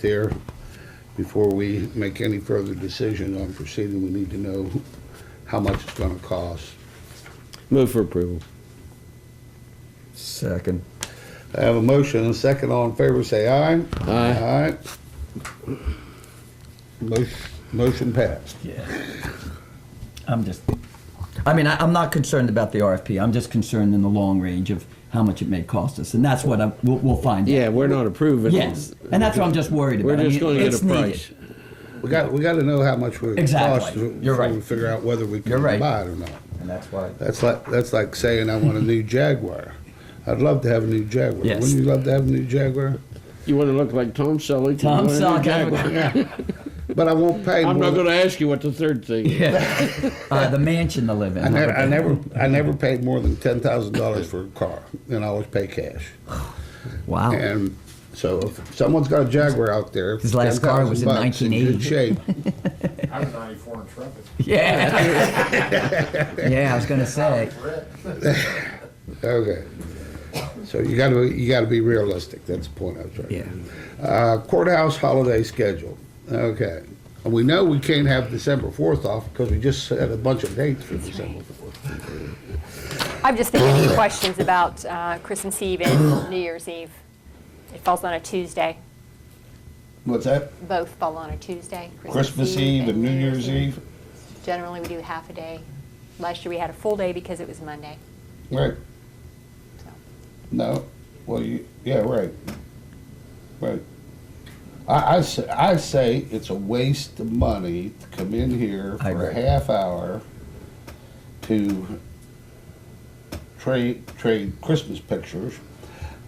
there, before we make any further decision on proceeding, we need to know how much it's gonna cost. Move for approval. Second. I have a motion and a second. All in favor, say aye. Aye. Aye. Motion, motion passed. Yeah. I'm just, I mean, I, I'm not concerned about the RFP. I'm just concerned in the long range of how much it may cost us, and that's what I, we'll, we'll find. out. Yeah, we're not approving. Yes, and that's what I'm just worried about. We're I just mean, going to get it's a needed. price. We got, we gotta know how much we're gonna cost. Exactly. You're before we right. Figure out whether we You're can right. buy it or not. And that's why. That's like, that's like saying I want a new Jaguar. I'd love to have a new Jaguar. Yes. Wouldn't you love to have a new Jaguar? You want to look like Tom Selleck? You Tom want a new Jaguar. Selleck. But I won't pay I'm more not than- going to ask you what the third thing is. Yeah. Uh, the mansion to live in. I never, I never, I never paid more than ten thousand dollars for a car, and I always pay cash. Wow. And so, if someone's got a Jaguar out there, His last car was in 10,000 bucks, in good 1980. shape. I was 94 Intrepid. Yeah. yeah, I was gonna say. Brett. Okay. So you got to, you got to be realistic. That's the point I was trying. to make. Uh, courthouse holiday schedule. Okay. And we know we can't have December fourth off because we just set a bunch of dates for December fourth. I'm just thinking of questions about uh, Christmas Eve and New Year's Eve. It falls on a Tuesday. What's that? Both fall on a Tuesday. Christmas Eve and New Year's Eve. Generally, we do half a day. Last year, we had a full day because it was Monday. Right. So. No. Well, you, yeah, right. Right. I, I, say, I say it's a waste of money to come in here I for a agree. half hour to trade trade Christmas pictures,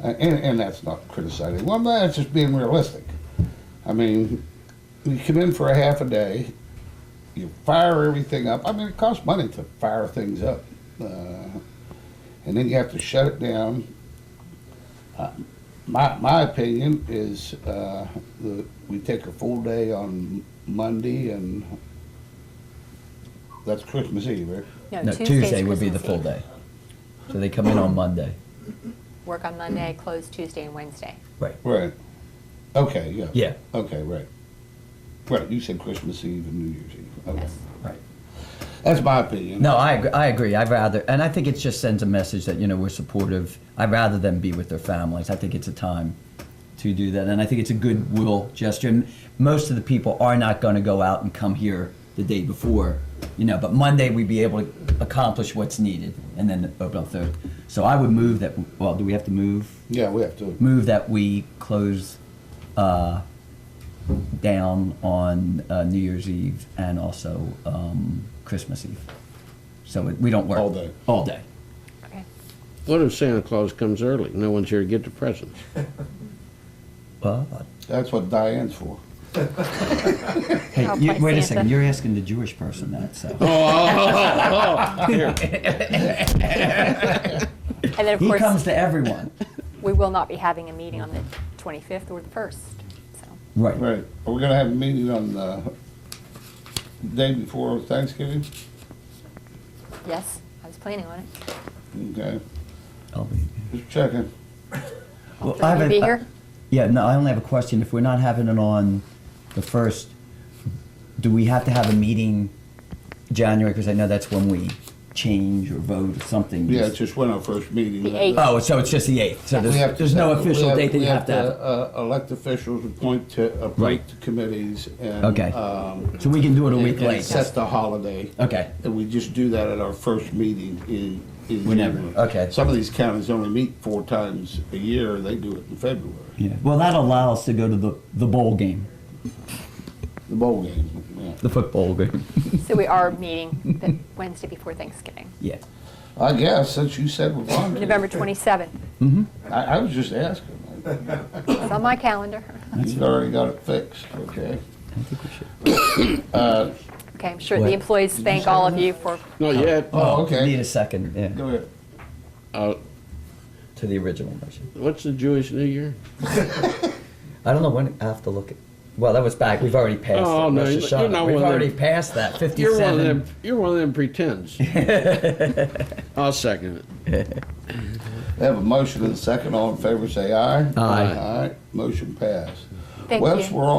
uh, and and that's not criticizing. Well, no, that's just being realistic. I mean, you come in for a half a day, you fire everything up. I mean, it costs money to fire things up, uh, and then you have to shut it down. Uh, my my opinion is uh, the, we take a full day on Monday, and that's Christmas Eve, right? No, Tuesday's Tuesday would be the Christmas full Eve. day. So they come in on Monday. Work on Monday, close Tuesday and Wednesday. Right. Okay. Yeah. Yeah. Okay. Right. Right. You said Christmas Eve and New Year's Eve. Okay. Yes. Right. That's my opinion. No, I agree. I agree. I'd rather, and I think it just sends a message that you know we're supportive. I'd rather them be with their families. I think it's a time to do that, and I think it's a goodwill gesture. And most of the people are not going to go out and come here the day before, you know. But Monday we'd be able to accomplish what's needed, and then open up third. So I would move that. Well, do we have to move? Yeah, we have to. Move that we close uh, down on uh, New Year's Eve and also um, Christmas Eve. So it, we don't work All day. All day. Okay. What if Santa Claus comes early? No one's here to get the presents. Well, That's what Diane's for. hey, I'll you, play wait a Santa. second. You're asking the Jewish person that, so Oh, And then, of he course, comes to everyone. we will not be having a meeting on the 25th or the 1st. So Right. Right. Are we gonna have a meeting on the day before Thanksgiving? yes, I was planning on it. Okay. I'll be, Just checking. well, Will you a- be here? yeah. No, I only have a question. If we're not having it on the first, do we have to have a meeting January? Because I know that's when we change or vote or something. Yeah, it's just when our first meeting. The eighth. Oh, so it's just the 8th. So We have there's, to there's no set- we official have- date that we you have to have. Uh, elect officials, appoint to, appoint Right. to committees and. Okay. um, So we can do it a and- week and late. Set the holiday. Okay. And we just do that at our first meeting in, in Whenever, January. okay. Some of these counties only meet four times a year, they do it in February, Yeah. Well, that allows to go to the, the bowl game, the bowl game, yeah. the football game. So we are meeting the Wednesday before Thanksgiving, yeah. I guess, since you said we're on. November 27th. I, I was just asking, It's on my calendar. you've already got it fixed, okay? I think we should. Okay, I'm sure What? the employees thank all of you for, Not yet. Oh, Need okay, a second. Yeah. go ahead. Uh, To the original motion. what's the Jewish New Year? I don't know when I have to look at. Well, that was back. We've already passed. Oh, it. no, Rosh you're- you're Hashanah. not We've one of them. already passed that. You're Fifty-seven. one of them. You're one of them pretends. I'll second it. They have a motion and a second, all in favor say aye. Aye. Aye, motion passed. Thank Wes, you. we're all